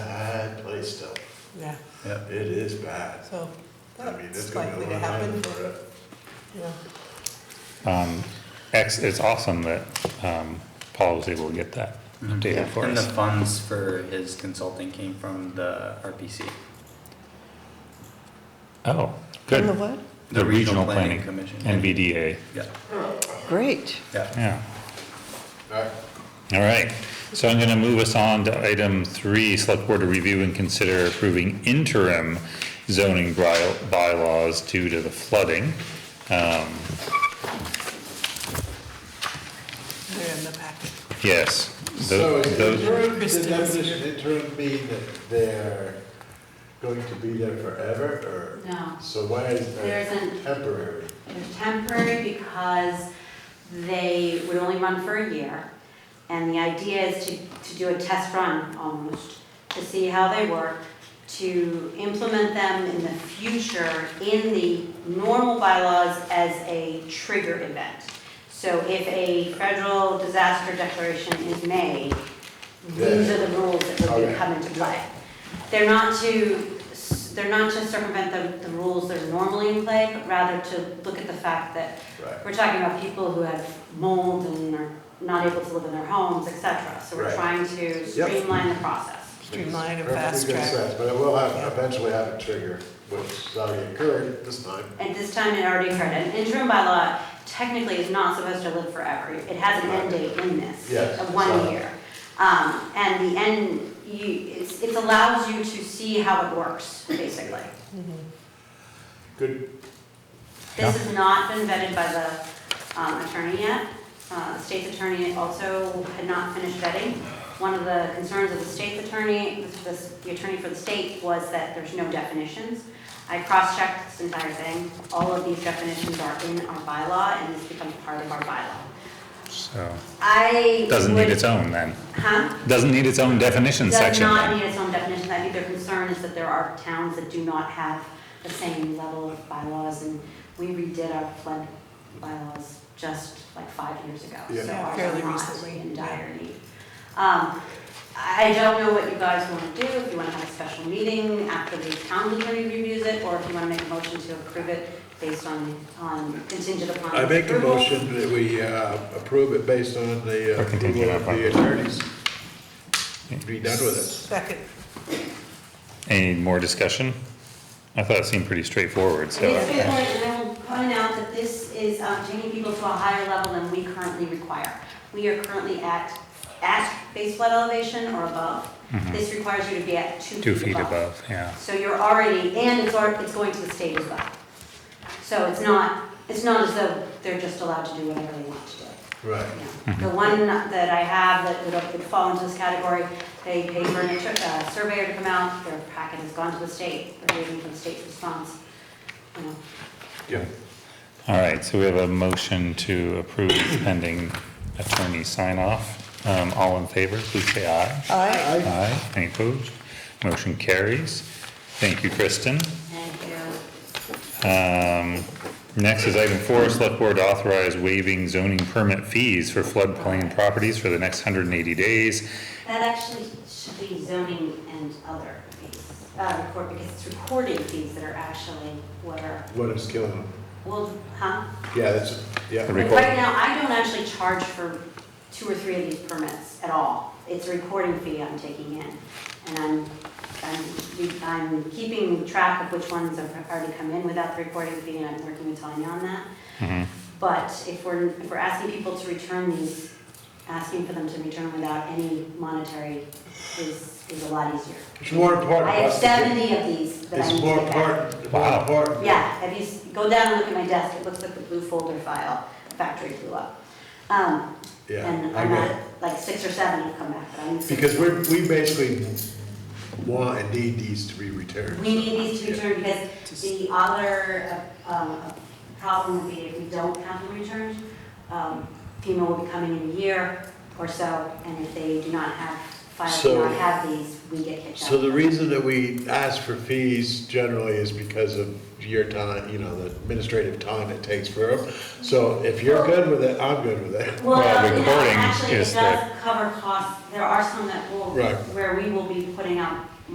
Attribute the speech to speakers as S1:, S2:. S1: Yeah.
S2: It is bad.
S3: So
S2: I mean, it's
S3: that's
S2: gonna be
S3: likely
S2: a
S3: to
S2: long time
S3: happen.
S2: for it.
S3: Yeah.
S4: Ex, Um, it's awesome that, um, Paul was able to get that updated for
S1: And the
S4: us.
S1: funds for his consulting came from the RPC.
S4: Oh,
S5: In the
S4: good.
S5: what?
S4: The Regional Planning
S1: Commission.
S4: NVDA,
S1: Yeah,
S5: Great.
S1: yeah.
S4: yeah.
S2: All right.
S4: All right, so I'm gonna move us on to item three, select board to review and consider approving interim zoning by- bylaws due to the flooding. Um,
S3: They're in the packet.
S4: yes. tho-
S2: So is
S4: those-
S2: interim, the
S3: Kristen's
S2: definition of interim mean that they're going to be there forever, or?
S6: No.
S2: So why is
S6: There
S2: that
S6: isn't.
S2: temporary?
S6: They're temporary because they would only run for a year. And the idea is to, to do a test run almost, to see how they work, to implement them in the future in the normal bylaws as a trigger event. So if a federal disaster declaration is made, these are the rules that would
S2: Okay.
S6: come into play. They're not to, they're not to circumvent the, the rules that are normally in play, but rather to look at the fact that
S2: Right.
S6: we're talking about people who have mold and are not able to live in their homes, et cetera. So we're
S2: Right.
S6: trying to
S2: Yep.
S6: streamline the process.
S3: Streamline and
S2: Perfectly
S3: fast
S2: good
S3: track.
S2: sense, But it will
S3: Yeah.
S2: have, eventually have a trigger, which is already occurred this time.
S6: At this time, it already occurred. An interim bylaw technically is not supposed to live forever. It has an end date in this.
S2: Yes,
S6: Of
S2: so-
S6: one year. Um, and the end, you, it's, it allows you to see how it works, basically.
S2: Good,
S6: This has not been vetted by the um, attorney yet. Uh, The state's attorney also had not finished vetting. One of the concerns of the state's attorney, this- this- the attorney for the state, was that there's no definitions. I cross-checked this entire thing. All of these definitions are in our bylaw, and this becomes part of our bylaw.
S4: So,
S6: I
S4: doesn't need
S6: would-
S4: its own then,
S6: Huh?
S4: doesn't need its own definition
S6: Does
S4: section
S6: not
S4: then.
S6: need its own definition. I think their concern is that there are towns that do not have the same level of bylaws, and we redid our flood bylaws just like five years ago.
S2: Yeah.
S6: So ours
S3: Fairly
S6: are not
S3: recently,
S6: in
S3: yeah.
S6: dire need. Um, I don't know what you guys want to do, if you want to have a special meeting after the town attorney reviews it, or if you want to make a motion to approve it based on, on contingent upon.
S2: I make a
S6: approval.
S2: motion that we uh, approve it based on the uh,
S4: Or contingent
S2: approval of the attorneys. Be done with
S3: Second.
S4: Any more discussion? I thought it seemed pretty straightforward, so.
S6: It is good point, and I will point out that this is uh, taking people to a higher level than we currently require. We are currently at, at base flood elevation or above. This requires you to be at
S4: Mm-hmm. Two feet above, yeah.
S6: So you're already, and it's, alre- it's going to the state as well. So it's not, it's not as though they're just allowed to do whatever they want to do.
S2: it. Right.
S4: Mm-hmm.
S6: The one that I have that would- would fall into this category, they paid for a tur- uh, surveyor to come out, their packet has gone to the state, they're waiting for the state's response. You know,
S2: Yeah.
S4: All right, so we have a motion to approve pending attorney sign off. Um, all in favor, please say aye.
S3: Aye.
S4: Aye. Any opposed? Motion carries. Thank you, Kristen.
S6: Thank you.
S4: Um, next is item four, select board to authorize waiving zoning permit fees for floodplain properties for the next hundred and eighty days.
S6: That actually should be zoning and other fees, uh, record, because it's recording fees that are actually what are,
S2: What is killing them?
S6: well, huh?
S2: Yeah, that's,
S4: The
S2: yeah.
S4: record-
S6: Right now, I don't actually charge for two or three of these permits at all. It's a recording fee I'm taking in, and I'm, I'm, I'm keeping track of which ones have already come in without the recording fee, and I'm working with Tanya on that.
S4: Mhm.
S6: But if we're, if we're asking people to return these, asking for them to return them without any monetary is, is a lot easier.
S2: It's more important.
S6: I have
S2: for us to get-
S6: seventy of these that I need
S2: It's
S6: to
S2: more
S6: get back.
S2: important, more
S4: Wow.
S2: important.
S6: Yeah, have you, s- go down and look at my desk, it looks like the blue folder file, factory blew up. Um,
S2: Yeah,
S6: and
S2: I
S6: I'm
S2: get
S6: at,
S2: it.
S6: like, six or seven have come back, but I'm.
S2: Because we're, we basically want and need these to be returned.
S6: We need these to return because the other, uh, um, problem would be if we don't have them returned, um, FEMA will be coming in a year or so, and if they do not have, files do
S2: So-
S6: not have these, we get kicked out.
S2: So the reason that we ask for fees generally is because of your time, you know, the administrative time it takes for them. So if you're good with it, I'm good with it.
S6: Well,
S4: Well,
S6: no,
S4: recording
S6: actually, it
S4: is
S6: does cover costs, there are some that will,
S2: Right.
S6: where we will be putting out